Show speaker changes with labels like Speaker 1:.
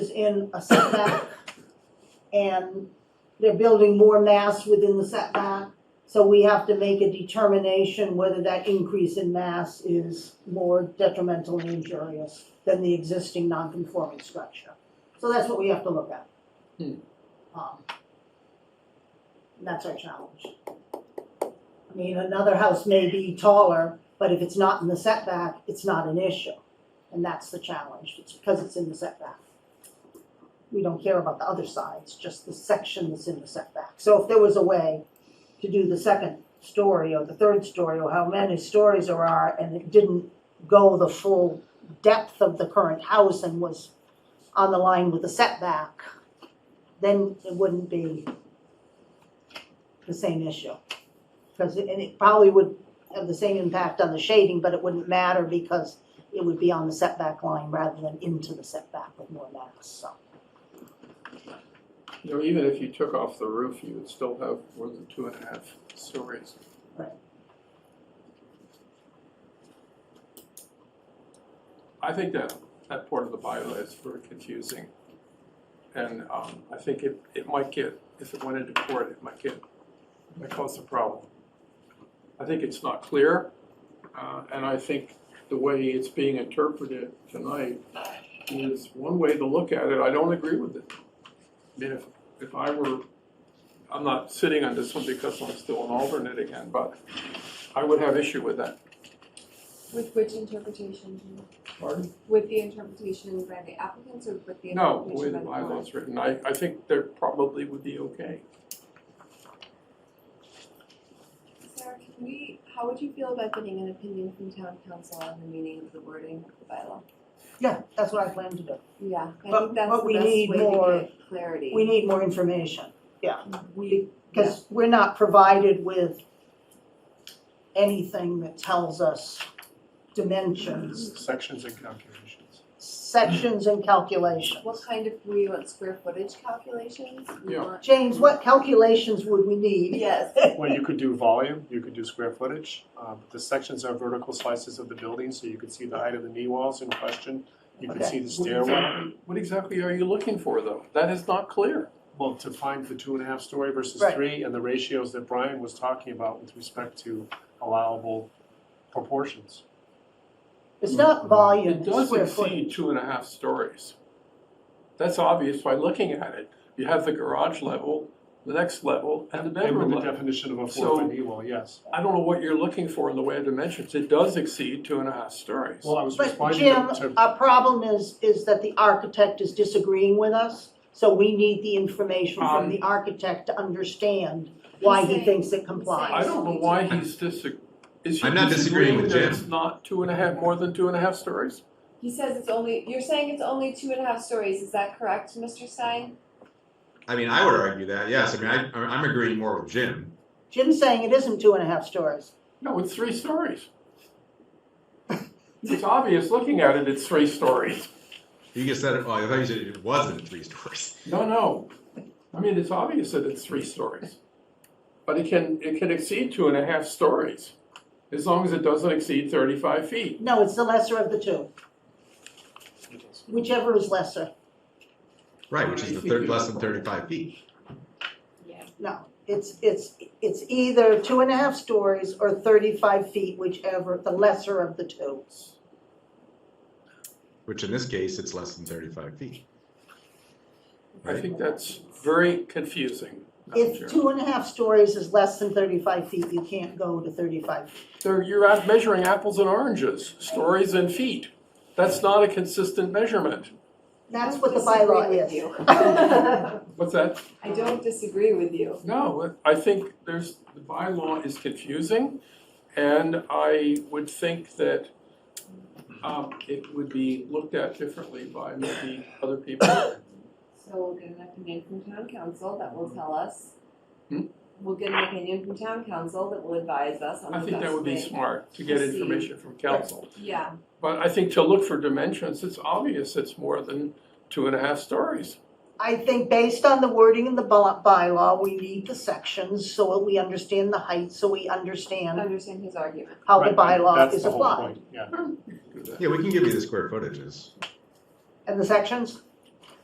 Speaker 1: in a setback and they're building more mass within the setback. So we have to make a determination whether that increase in mass is more detrimental and injurious than the existing non-conforming structure. So that's what we have to look at.
Speaker 2: Hmm.
Speaker 1: Um, and that's our challenge. I mean, another house may be taller, but if it's not in the setback, it's not an issue. And that's the challenge, it's because it's in the setback. We don't care about the other sides, just the section that's in the setback. So if there was a way to do the second story or the third story or how many stories there are and it didn't go the full depth of the current house and was on the line with the setback, then it wouldn't be the same issue. Because, and it probably would have the same impact on the shading, but it wouldn't matter because it would be on the setback line rather than into the setback with more mass, so.
Speaker 2: You know, even if you took off the roof, you would still have more than two and a half stories.
Speaker 1: Right.
Speaker 2: I think that, that part of the bylaw is very confusing. And, um, I think it, it might get, if it went into court, it might get, might cause a problem. I think it's not clear, uh, and I think the way it's being interpreted tonight is one way to look at it. I don't agree with it. I mean, if, if I were, I'm not sitting on this one because I'm still an alternate again, but I would have issue with that.
Speaker 3: With which interpretation?
Speaker 2: Pardon?
Speaker 3: With the interpretation by the applicants or with the
Speaker 2: No, the way
Speaker 3: interpretation
Speaker 2: the
Speaker 3: by the board?
Speaker 2: bylaw's written, I, I think there probably would be okay.
Speaker 3: Sarah, can we, how would you feel about getting an opinion from town council on the meaning of the wording of the bylaw?
Speaker 1: Yeah, that's what I plan to do.
Speaker 3: Yeah, I
Speaker 1: But-
Speaker 3: think that's
Speaker 1: but we
Speaker 3: the best way
Speaker 1: need more-
Speaker 3: to get clarity.
Speaker 1: We need more information, yeah. We,
Speaker 3: Yeah.
Speaker 1: because we're not provided with anything that tells us dimensions,
Speaker 4: Sections and calculations.
Speaker 1: sections and calculations.
Speaker 3: What kind of, we want square footage calculations? We
Speaker 2: Yeah.
Speaker 3: want-
Speaker 1: James, what calculations would we need?
Speaker 3: Yes,
Speaker 4: Well, you could do volume, you could do square footage. Um, The sections are vertical slices of the building, so you could see the height of the knee walls in question. You could see the stairwell.
Speaker 2: What exactly are you looking for, though? That is not clear.
Speaker 4: Well, to find the two and a half story versus
Speaker 1: Right.
Speaker 4: three and the ratios that Brian was talking about with respect to allowable proportions.
Speaker 1: It's not volume,
Speaker 2: It
Speaker 1: it's
Speaker 2: does
Speaker 1: square footage.
Speaker 2: exceed two and a half stories. That's obvious by looking at it. You have the garage level, the next level, and the
Speaker 4: And
Speaker 2: bedroom
Speaker 4: with the
Speaker 2: level.
Speaker 4: definition of a
Speaker 2: So-
Speaker 4: four foot knee wall, yes.
Speaker 2: I don't know what you're looking for in the way of dimensions. It does exceed two and a half stories.
Speaker 4: Well, I was
Speaker 1: But
Speaker 4: responding
Speaker 1: Jim,
Speaker 4: to- to,
Speaker 1: our problem is, is that the architect is disagreeing with us, so we need the information from
Speaker 2: Um,
Speaker 1: the architect to understand why he
Speaker 3: saying-
Speaker 1: thinks it
Speaker 2: I
Speaker 1: complies.
Speaker 2: don't know why he's disag- is he
Speaker 5: I'm not disagreeing
Speaker 2: disagreeing
Speaker 5: with
Speaker 2: that
Speaker 5: Jim.
Speaker 2: it's not two and a half, more than two and a half stories?
Speaker 3: he says it's only, you're saying it's only two and a half stories, is that correct, Mr. Stein?
Speaker 5: I mean, I would argue that, yes. I mean, I, I'm agreeing more with Jim.
Speaker 1: Jim's saying it isn't two and a half stories.
Speaker 2: No, it's three stories. It's obvious, looking at it, it's three stories.
Speaker 5: You just said, well, I thought you said it wasn't three stories.
Speaker 2: No, no, I mean, it's obvious that it's three stories. But it can, it can exceed two and a half stories, as long as it doesn't exceed thirty-five feet.
Speaker 1: No, it's the lesser of the two, whichever is lesser.
Speaker 5: Right, which is the third, less than thirty-five feet.
Speaker 3: Yeah.
Speaker 1: No, it's, it's, it's either two and a half stories or thirty-five feet, whichever, the lesser of the two.
Speaker 5: Which in this case, it's less than thirty-five feet.
Speaker 2: I think that's very confusing, Madam Chair.
Speaker 1: If two and a half stories is less than thirty-five feet, you can't go to thirty-five
Speaker 2: They're, you're out measuring apples and oranges, stories and feet. That's not a consistent measurement.
Speaker 1: That's what the bylaw is.
Speaker 2: What's that?
Speaker 3: I don't disagree with you.
Speaker 2: No, I think there's, the bylaw is confusing, and I would think that um, it would be looked at differently by maybe other people.
Speaker 3: So we'll get an opinion from town council that will tell us.
Speaker 2: Hmm?
Speaker 3: We'll get an opinion from town council that will advise us on the
Speaker 2: I
Speaker 3: best
Speaker 2: think that would be
Speaker 3: way.
Speaker 2: smart, to get information from council.
Speaker 3: Yeah,
Speaker 2: But I think to look for dimensions, it's obvious it's more than two and a half stories.
Speaker 1: I think based on the wording in the by- bylaw, we need the sections so we understand the height, so we understand
Speaker 3: understand his argument.
Speaker 1: how the
Speaker 4: Right,
Speaker 1: bylaw is
Speaker 4: That's the whole
Speaker 1: applied.
Speaker 4: point, yeah.
Speaker 2: Hmm, you could do that.
Speaker 5: Yeah, we can give you the square footages.
Speaker 1: And the sections?